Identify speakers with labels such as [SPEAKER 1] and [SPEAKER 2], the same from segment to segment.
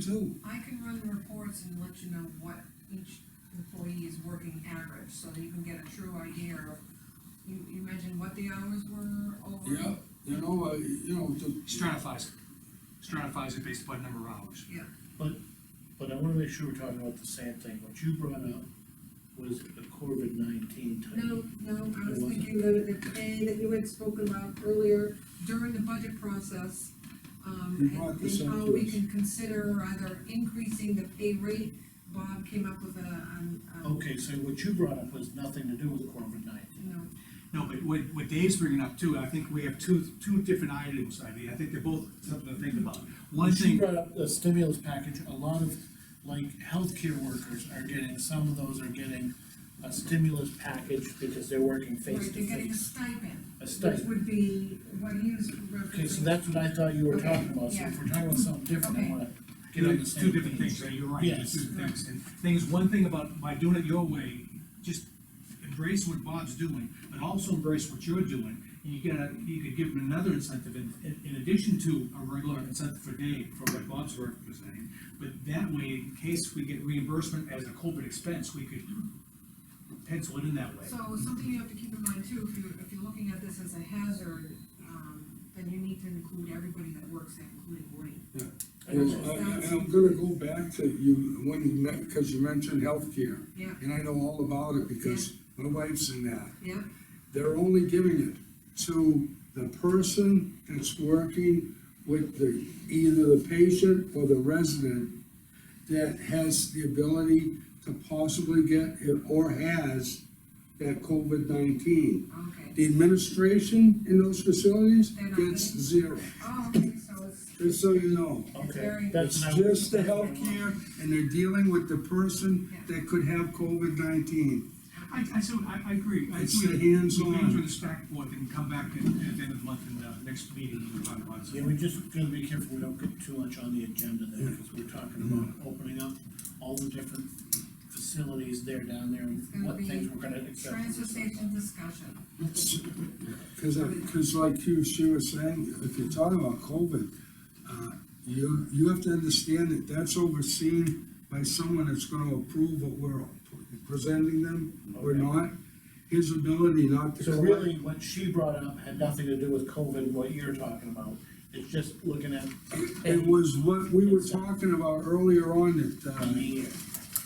[SPEAKER 1] too.
[SPEAKER 2] I can run reports and let you know what each employee is working average, so that you can get a true idea of, you, you mentioned what the hours were over.
[SPEAKER 1] Yeah, you know, uh, you know, to.
[SPEAKER 3] stratifies it, stratifies it based upon number of hours.
[SPEAKER 2] Yeah,
[SPEAKER 4] But, but I wanna make sure we're talking about the same thing, what you brought up was the COVID nineteen type.
[SPEAKER 2] no, no, I was
[SPEAKER 4] It wasn't.
[SPEAKER 2] thinking the, the pay that you had spoken about earlier during the budget process.
[SPEAKER 1] You
[SPEAKER 2] Um,
[SPEAKER 1] brought
[SPEAKER 2] and-
[SPEAKER 1] this
[SPEAKER 2] and
[SPEAKER 1] up
[SPEAKER 2] how
[SPEAKER 1] to
[SPEAKER 2] we
[SPEAKER 1] us.
[SPEAKER 2] can consider either increasing the pay rate, Bob came up with a, um, um,
[SPEAKER 4] Okay, so what you brought up was nothing to do with COVID nineteen.
[SPEAKER 2] you know,
[SPEAKER 3] No, but what, what Dave's bringing up too, I think we have two, two different items, I mean, I think they're both something to think about. One
[SPEAKER 4] She
[SPEAKER 3] thing,
[SPEAKER 4] brought up the stimulus package, a lot of, like, healthcare workers are getting, some of those are getting a stimulus package because they're working
[SPEAKER 2] where
[SPEAKER 4] face
[SPEAKER 2] they're
[SPEAKER 4] to
[SPEAKER 2] getting a
[SPEAKER 4] face.
[SPEAKER 2] stipend.
[SPEAKER 4] A stipend.
[SPEAKER 2] Which would be what he was
[SPEAKER 4] Okay, so
[SPEAKER 2] referencing.
[SPEAKER 4] that's what I thought you were
[SPEAKER 2] Okay,
[SPEAKER 4] talking about, so
[SPEAKER 2] yeah.
[SPEAKER 4] if we're talking about something different, I
[SPEAKER 2] Okay.
[SPEAKER 4] wanna get on the
[SPEAKER 3] it's
[SPEAKER 4] same.
[SPEAKER 3] two different
[SPEAKER 4] page.
[SPEAKER 3] things, right, you're right,
[SPEAKER 4] Yes.
[SPEAKER 3] it's two different things. And thing is, one thing about, by doing it your way, just embrace what Bob's doing, but also embrace what you're doing. And you gotta, you could give them another incentive in, in- in addition to a regular incentive for Dave, for what Bob's representing. But that way, in case we get reimbursement as a corporate expense, we could pencil it in that way.
[SPEAKER 2] So something you have to keep in mind too, if you're, if you're looking at this as a hazard, um, then you need to include everybody that works there, including Woody.
[SPEAKER 1] Yes, I- I- And I'm gonna go back to you, when you met, because you mentioned healthcare.
[SPEAKER 2] Yeah.
[SPEAKER 1] And I know all about it because my wife's in that.
[SPEAKER 2] Yep,
[SPEAKER 1] They're only giving it to the person that's working with the, either the patient or the resident that has the ability to possibly get it or has that COVID nineteen.
[SPEAKER 2] okay.
[SPEAKER 1] The administration in those facilities
[SPEAKER 2] They're not
[SPEAKER 1] gets
[SPEAKER 2] getting-
[SPEAKER 1] zero,
[SPEAKER 2] Oh, okay, so it's,
[SPEAKER 1] just so you know.
[SPEAKER 4] Okay,
[SPEAKER 2] Very-
[SPEAKER 4] that's.
[SPEAKER 1] It's just the healthcare, and they're dealing with the person that could have COVID nineteen.
[SPEAKER 3] I, I, so, I, I agree. I
[SPEAKER 1] It's
[SPEAKER 3] agree.
[SPEAKER 1] the hands-on.
[SPEAKER 3] We can do this back board and come back at, at the end of the month and, uh, next meeting, we'll talk about
[SPEAKER 4] Yeah,
[SPEAKER 3] it.
[SPEAKER 4] we just gotta be careful we don't get too much on the agenda there, because we're talking about
[SPEAKER 1] Mm-hmm.
[SPEAKER 4] opening up all the different facilities there down there,
[SPEAKER 2] it's
[SPEAKER 4] and
[SPEAKER 2] gonna
[SPEAKER 4] what things we're gonna
[SPEAKER 2] be
[SPEAKER 4] accept.
[SPEAKER 2] transfer station discussion.
[SPEAKER 1] Cause, I- cause like you, she was saying, if you're talking about COVID, uh, you, you have to understand that that's overseen by someone that's gonna approve what we're presenting them or
[SPEAKER 4] Okay.
[SPEAKER 1] not, his ability not to.
[SPEAKER 4] So
[SPEAKER 1] collect-
[SPEAKER 4] really, what she brought up had nothing to do with COVID, what you're talking about, it's just looking at.
[SPEAKER 1] It was what we were talking about earlier on that,
[SPEAKER 4] On the
[SPEAKER 1] uh,
[SPEAKER 4] year.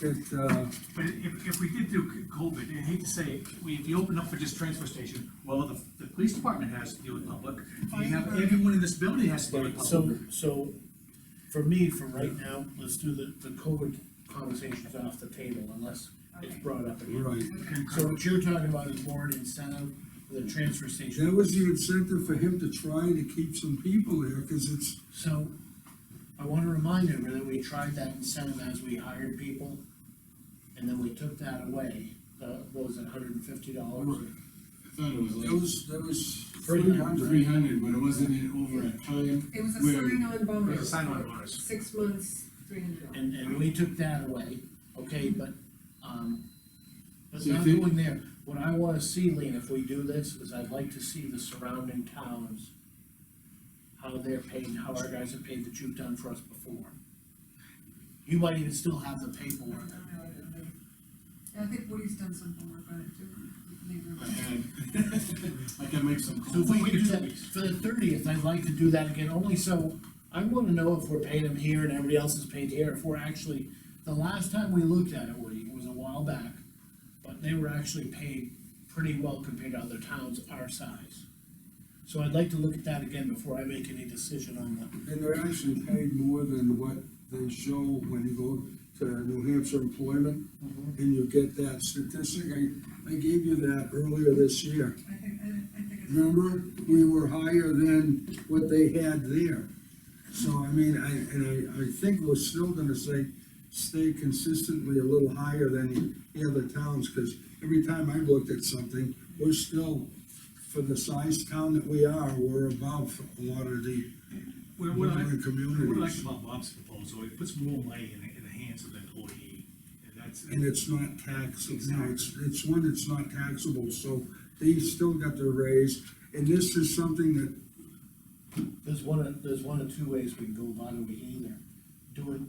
[SPEAKER 1] that, uh,
[SPEAKER 3] But if, if we did do c- COVID, and I hate to say, it, we, if you open up for just transfer station, well, the, the police department has to deal with public. You have, everyone in this building has to deal with
[SPEAKER 4] So,
[SPEAKER 3] public.
[SPEAKER 4] so, for me, for right now, let's do the, the COVID conversations off the table unless it's
[SPEAKER 2] Okay.
[SPEAKER 4] brought up again.
[SPEAKER 1] right.
[SPEAKER 2] Okay.
[SPEAKER 4] So what you're talking about is more an incentive, for the transfer station.
[SPEAKER 1] That was the incentive for him to try to keep some people there, cause it's,
[SPEAKER 4] So, I wanna remind everyone that we tried that incentive as we hired people, and then we took that away, uh, what was it, hundred and fifty dollars?
[SPEAKER 5] I thought it was
[SPEAKER 1] that
[SPEAKER 5] like
[SPEAKER 1] was, that was
[SPEAKER 4] Three
[SPEAKER 1] three hundred.
[SPEAKER 5] three hundred, but it wasn't in over a time.
[SPEAKER 2] It was a
[SPEAKER 5] Where-
[SPEAKER 2] sign-on bonus.
[SPEAKER 3] It was a sign-on bonus.
[SPEAKER 2] Six months, three hundred dollars.
[SPEAKER 4] And, and we took that away, okay, but, um, but
[SPEAKER 5] So you
[SPEAKER 4] not
[SPEAKER 5] think-
[SPEAKER 4] going there, what I wanna see, Lean, if we do this, is I'd like to see the surrounding towns, how they're paid, and how our guys are paid that you've done for us before. You might even still have the paperwork,
[SPEAKER 2] I think Woody's done some homework on it too. Leave
[SPEAKER 5] I
[SPEAKER 2] it.
[SPEAKER 5] had, I can make some
[SPEAKER 4] So
[SPEAKER 5] calls.
[SPEAKER 4] if we could do that, for the thirtieth, I'd like to do that again, only so, I wanna know if we're paying them here and everybody else is paid here, if we're actually, the last time we looked at it, Woody, it was a while back, but they were actually paid pretty well compared to other towns our size. So I'd like to look at that again before I make any decision on that.
[SPEAKER 1] And they're actually paid more than what they show when you go to New Hampshire employment, and you get that statistic, I, I gave you that earlier this year.
[SPEAKER 2] I think, I, I think it's.
[SPEAKER 1] Remember, we were higher than what they had there. So, I mean, I, and I, I think we're still gonna say, stay consistently a little higher than the other towns, cause every time I looked at something, we're still, for the size town that we are, we're above a lot of the
[SPEAKER 3] Where, what I,
[SPEAKER 1] Within the communities.
[SPEAKER 3] what I like about Bob's proposal, it puts more money in, the- in the hands of the employee, and that's.
[SPEAKER 1] and it's not taxable, no, it's, it's one that's not taxable, so they still got their raise, and this is something that,
[SPEAKER 4] There's one, of- there's one of two ways we can go about it, we can either do it